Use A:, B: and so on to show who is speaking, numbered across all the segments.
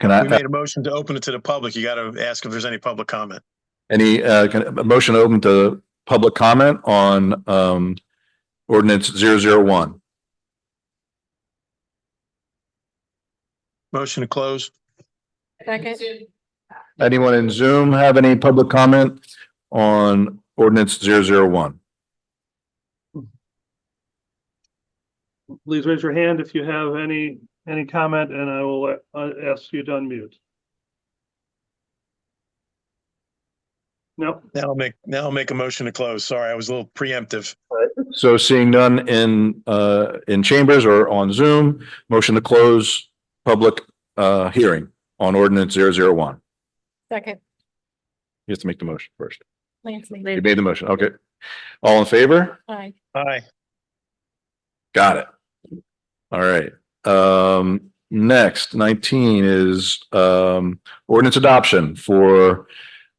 A: Can
B: We
A: I,
B: made a motion to open it to the public. You got to ask if there's any public comment.
A: any, uh, can, a motion open to public comment on, um, ordinance zero zero one?
B: Motion to close.
C: Second.
A: Anyone in Zoom have any public comment on ordinance zero zero one?
D: Please raise your hand if you have any, any comment and I will uh, ask you to unmute. No,
B: Now I'll make, now I'll make a motion to close. Sorry, I was a little preemptive.
A: So seeing none in, uh, in chambers or on Zoom, motion to close public, uh, hearing on ordinance zero zero one.
C: Second.
A: You have to make the motion first.
C: Lance
A: You
C: Lee.
A: made the motion. Okay. All in favor?
C: Aye.
B: Aye.
A: Got it. All right. Um, next nineteen is, um, ordinance adoption for,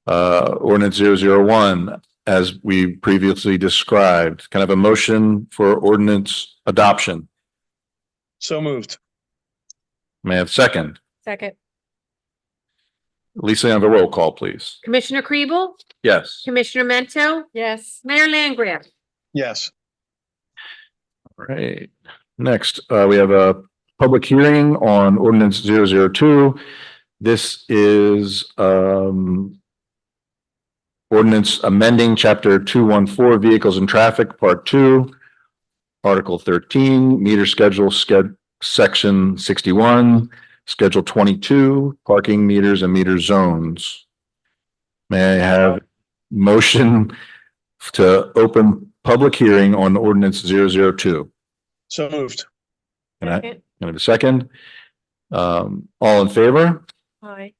A: uh, ordinance zero zero one, as we previously described, kind of a motion for ordinance adoption.
B: So moved.
A: May I have a second?
C: Second.
A: Lisa, have a roll call, please.
E: Commissioner Kribel?
A: Yes.
E: Commissioner Mento?
C: Yes.
E: Mayor Langgraf?
B: Yes.
A: All Right. Next, uh, we have a public hearing on ordinance zero zero two. This is, um, ordinance amending chapter two one four vehicles and traffic, part two, article thirteen, meter schedule, sched, section sixty-one, schedule twenty-two, parking meters and meter zones. May I have motion to open public hearing on ordinance zero zero two?
B: So moved.
A: Can I,
C: Second.
A: can I have a second? Um, all in favor?
C: Aye.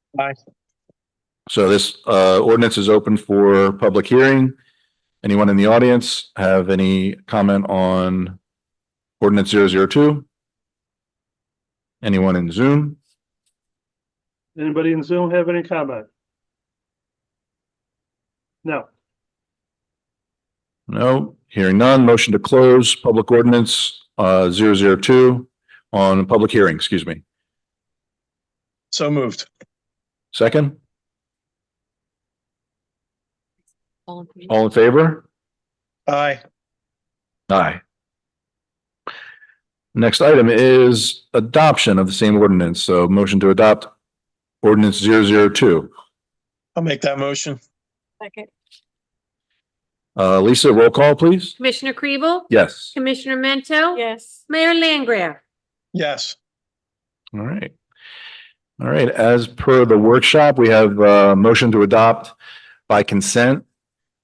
A: So this, uh, ordinance is open for public hearing. Anyone in the audience have any comment on ordinance zero zero two? Anyone in Zoom?
D: anybody in Zoom have any comment? No,
A: No, hearing none. Motion to close public ordinance, uh, zero zero two on public hearing, excuse me.
B: So moved.
A: Second,
C: All
A: all in favor?
B: Aye.
A: Aye. Next item is adoption of the same ordinance, so motion to adopt ordinance zero zero two.
B: I'll make that motion.
C: Second.
A: Uh, Lisa, roll call, please.
E: Commissioner Kribel?
A: Yes.
E: Commissioner Mento?
C: Yes.
E: Mayor Langgraf?
B: Yes.
A: All right. All right, as per the workshop, we have uh motion to adopt by consent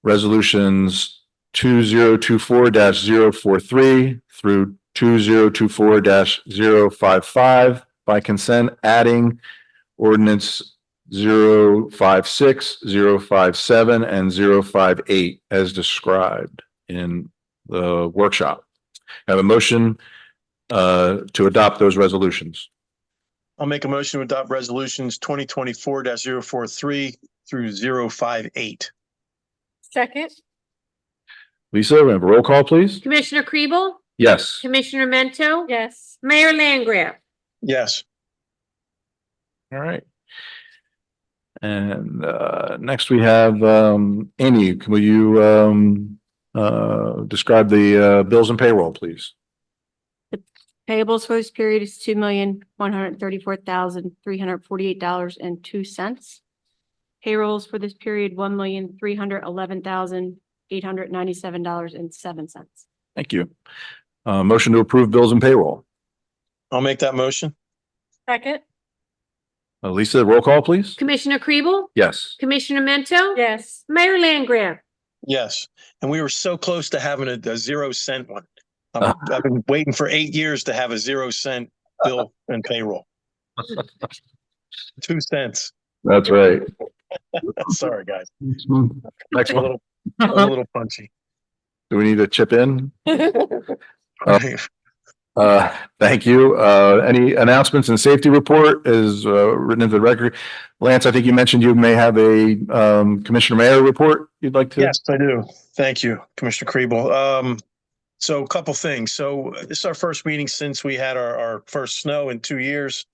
A: resolutions two zero two four 43 through two zero two four 55 by consent, adding ordinance 056, 057, and 058 as described in the workshop. I Have a motion uh to adopt those resolutions.
B: I'll make a motion to adopt resolutions twenty twenty-four 43 through 058.
C: Second.
A: Lisa, we have a roll call, please?
E: Commissioner Kribel?
A: Yes.
E: Commissioner Mento?
C: Yes.
E: Mayor Langgraf?
B: Yes.
A: All right. And uh, next we have um, Amy, can- will you um, uh, describe the uh, bills and payroll, please?
F: Payables for this period is two million, one hundred thirty-four thousand, three hundred forty-eight dollars and two cents. Payrolls for this period, one million, three hundred eleven thousand, eight hundred ninety-seven dollars and seven cents.
A: Thank you. Uh, Motion to approve bills and payroll.
B: I'll make that motion.
C: Second.
A: Uh, Lisa, roll call, please?
E: Commissioner Kribel?
A: Yes.
E: Commissioner Mento?
C: Yes.
E: Mayor Langgraf?
B: Yes. And we were so close to having a, a zero cent one. I'm- I've been waiting for eight years to have a zero cent bill and payroll. Two cents.
A: That's right.
B: Sorry, guys.
A: Next
B: I'm a
A: one,
B: little, I'm a little punchy.
A: do we need to chip in? Uh, thank you. Uh, any announcements and safety report is, uh, written into the record. Lance, I think you mentioned you may have a, um, Commissioner Mayor report you'd like to.
B: Yes, I do. Thank you, Commissioner Kriebel. Um, so a couple things. So this is our first meeting since we had our, our first snow in two years.